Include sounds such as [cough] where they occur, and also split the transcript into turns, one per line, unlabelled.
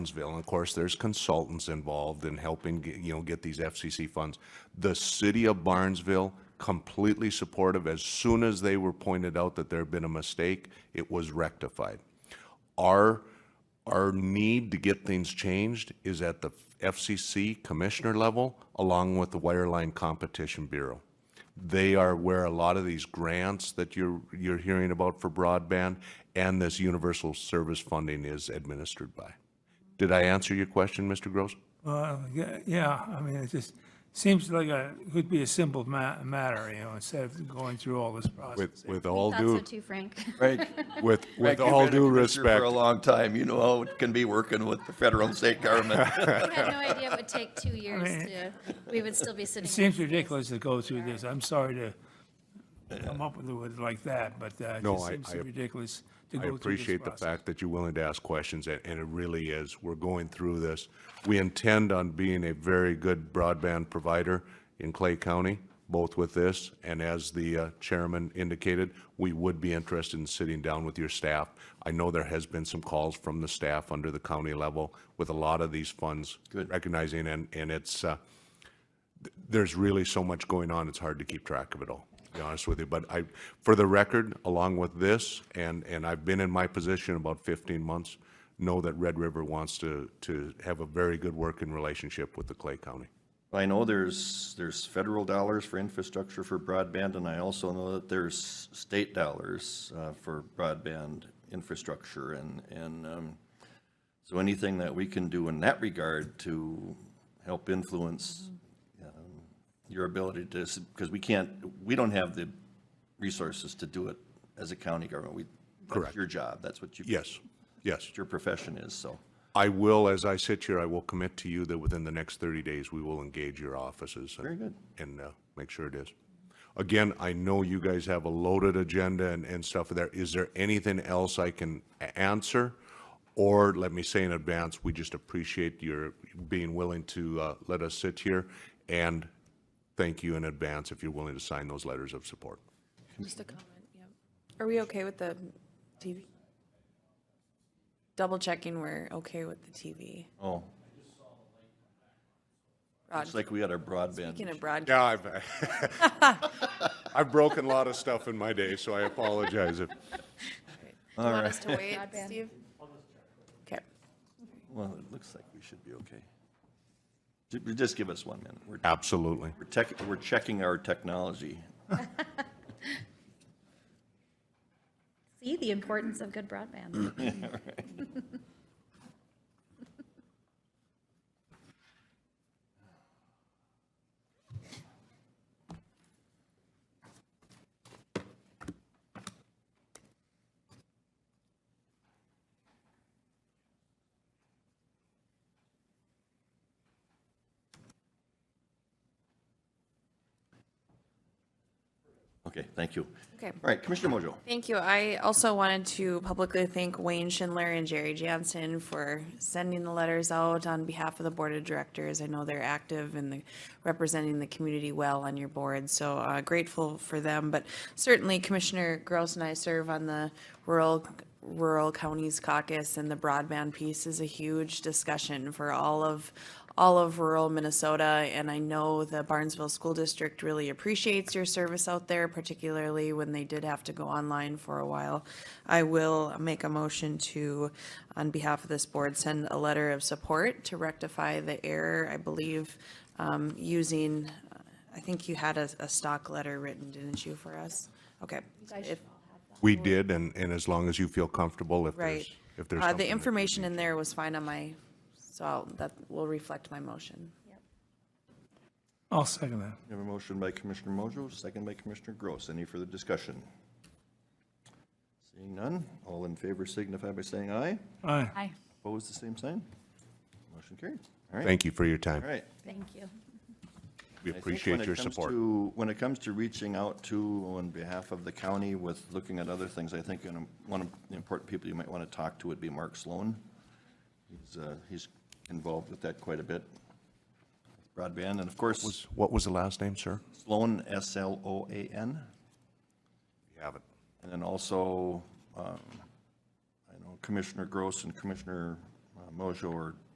Evansville, and of course, there's consultants involved in helping, get- you know, get these FCC funds. The city of Barnesville, completely supportive. As soon as they were pointed out that there had been a mistake, it was rectified. Our, our need to get things changed is at the FCC commissioner level, along with the Wireline Competition Bureau. They are where a lot of these grants that you're, you're hearing about for broadband and this universal service funding is administered by. Did I answer your question, Mr. Gross?
Uh, yeah- Yeah, I mean, it just seems like a, could be a simple ma- matter, you know, instead of going through all this process.
With, with all
Thought so
due,
too, Frank. [laughs]
Frank,
with,
Frank,
with
you've
all
been a
due
commissioner
respect,
For a long time, you know how it can be working with the federal and state
[laughs]
government.
I had no idea it would take two years
mean-
to, we would still be sitting.
It seems ridiculous to go through this. I'm sorry to come up with it with like that, but uh, it
No,
just
I-
seems
I-
ridiculous to
I
go through this
appreciate the
process.
fact that you're willing to ask questions, and and it really is, we're going through this. We intend on being a very good broadband provider in Clay County, both with this, and as the uh, chairman indicated, we would be interested in sitting down with your staff. I know there has been some calls from the staff under the county level with a lot of these funds. Recognizing, and, and it's, uh, there's really so much going on, it's hard to keep track of it all, to be honest with you. But I, for the record, along with this, and, and I've been in my position about 15 months, know that Red River wants to, to have a very good working relationship with the Clay County.
I know there's, there's federal dollars for infrastructure for broadband, and I also know that there's state dollars uh, for broadband infrastructure, and, and um, so anything that we can do in that regard to help influence um, your ability to, because we can't, we don't have the resources to do it as a county government. We-
Correct.
That's your job, that's what you.
Yes, yes.
what Your profession is, so.
I will, as I sit here, I will commit to you that within the next 30 days, we will engage your offices. and-
Very good.
And uh, make sure it is. Again, I know you guys have a loaded agenda and, and stuff there. Is there anything else I can a- answer? Or let me say in advance, we just appreciate your being willing to uh, let us sit here and thank you in advance if you're willing to sign those letters of support.
Just a comment, yeah. Are we okay with the TV? Double checking we're okay with the TV.
Oh,
Broad-
it's like we had our broadband.
Speaking of broad,
Yeah, I've, [laughs] I've broken a lot of stuff in my day, so I apologize if.
do you want us to wait, Steve? Okay,
Well, it looks like we should be okay. Ju- Just give us one minute. We're,
Absolutely.
we're tech, we're checking our technology.
See the importance of good broadband.
Okay, thank you.
okay.
All right, Commissioner Mojo.
Thank you. I also wanted to publicly thank Wayne Schindler and Jerry Jansen for sending the letters out on behalf of the Board of Directors. I know they're active and the- representing the community well on your board, so uh, grateful for them. But certainly Commissioner Gross and I serve on the Rural, Rural Counties Caucus, and the broadband piece is a huge discussion for all of, all of rural Minnesota, and I know the Barnesville School District really appreciates your service out there, particularly when they did have to go online for a while. I will make a motion to, on behalf of this board, send a letter of support to rectify the error, I believe, um, using, uh, I think you had a, a stock letter written, didn't you, for us? Okay. If-
We did, and, and as long as you feel comfortable, if
Right.
there's, if there's
Uh,
something.
The
that-
information in there was fine on my, so I'll- that will reflect my motion.
I'll second that.
We have a motion by Commissioner Mojo, second by Commissioner Gross. Any further discussion? Seeing none, all in favor signify by saying aye.
All right.
Opposed, the same sign. Motion carried. All right,
Thank you for your time.
all right.
Thank you.
We
I think when
appreciate
it
your
comes
support.
to- When it comes to reaching out to, on behalf of the county with looking at other things, I think you know, one of the important people you might want to talk to would be Mark Sloan. He's, uh, he's involved with that quite a bit, broadband, and of course,
What was the last name, sir?
Sloan, S-L-O-A-N.
We haven't.
And then also, um, I know Commissioner Gross and Commissioner uh, Mojo or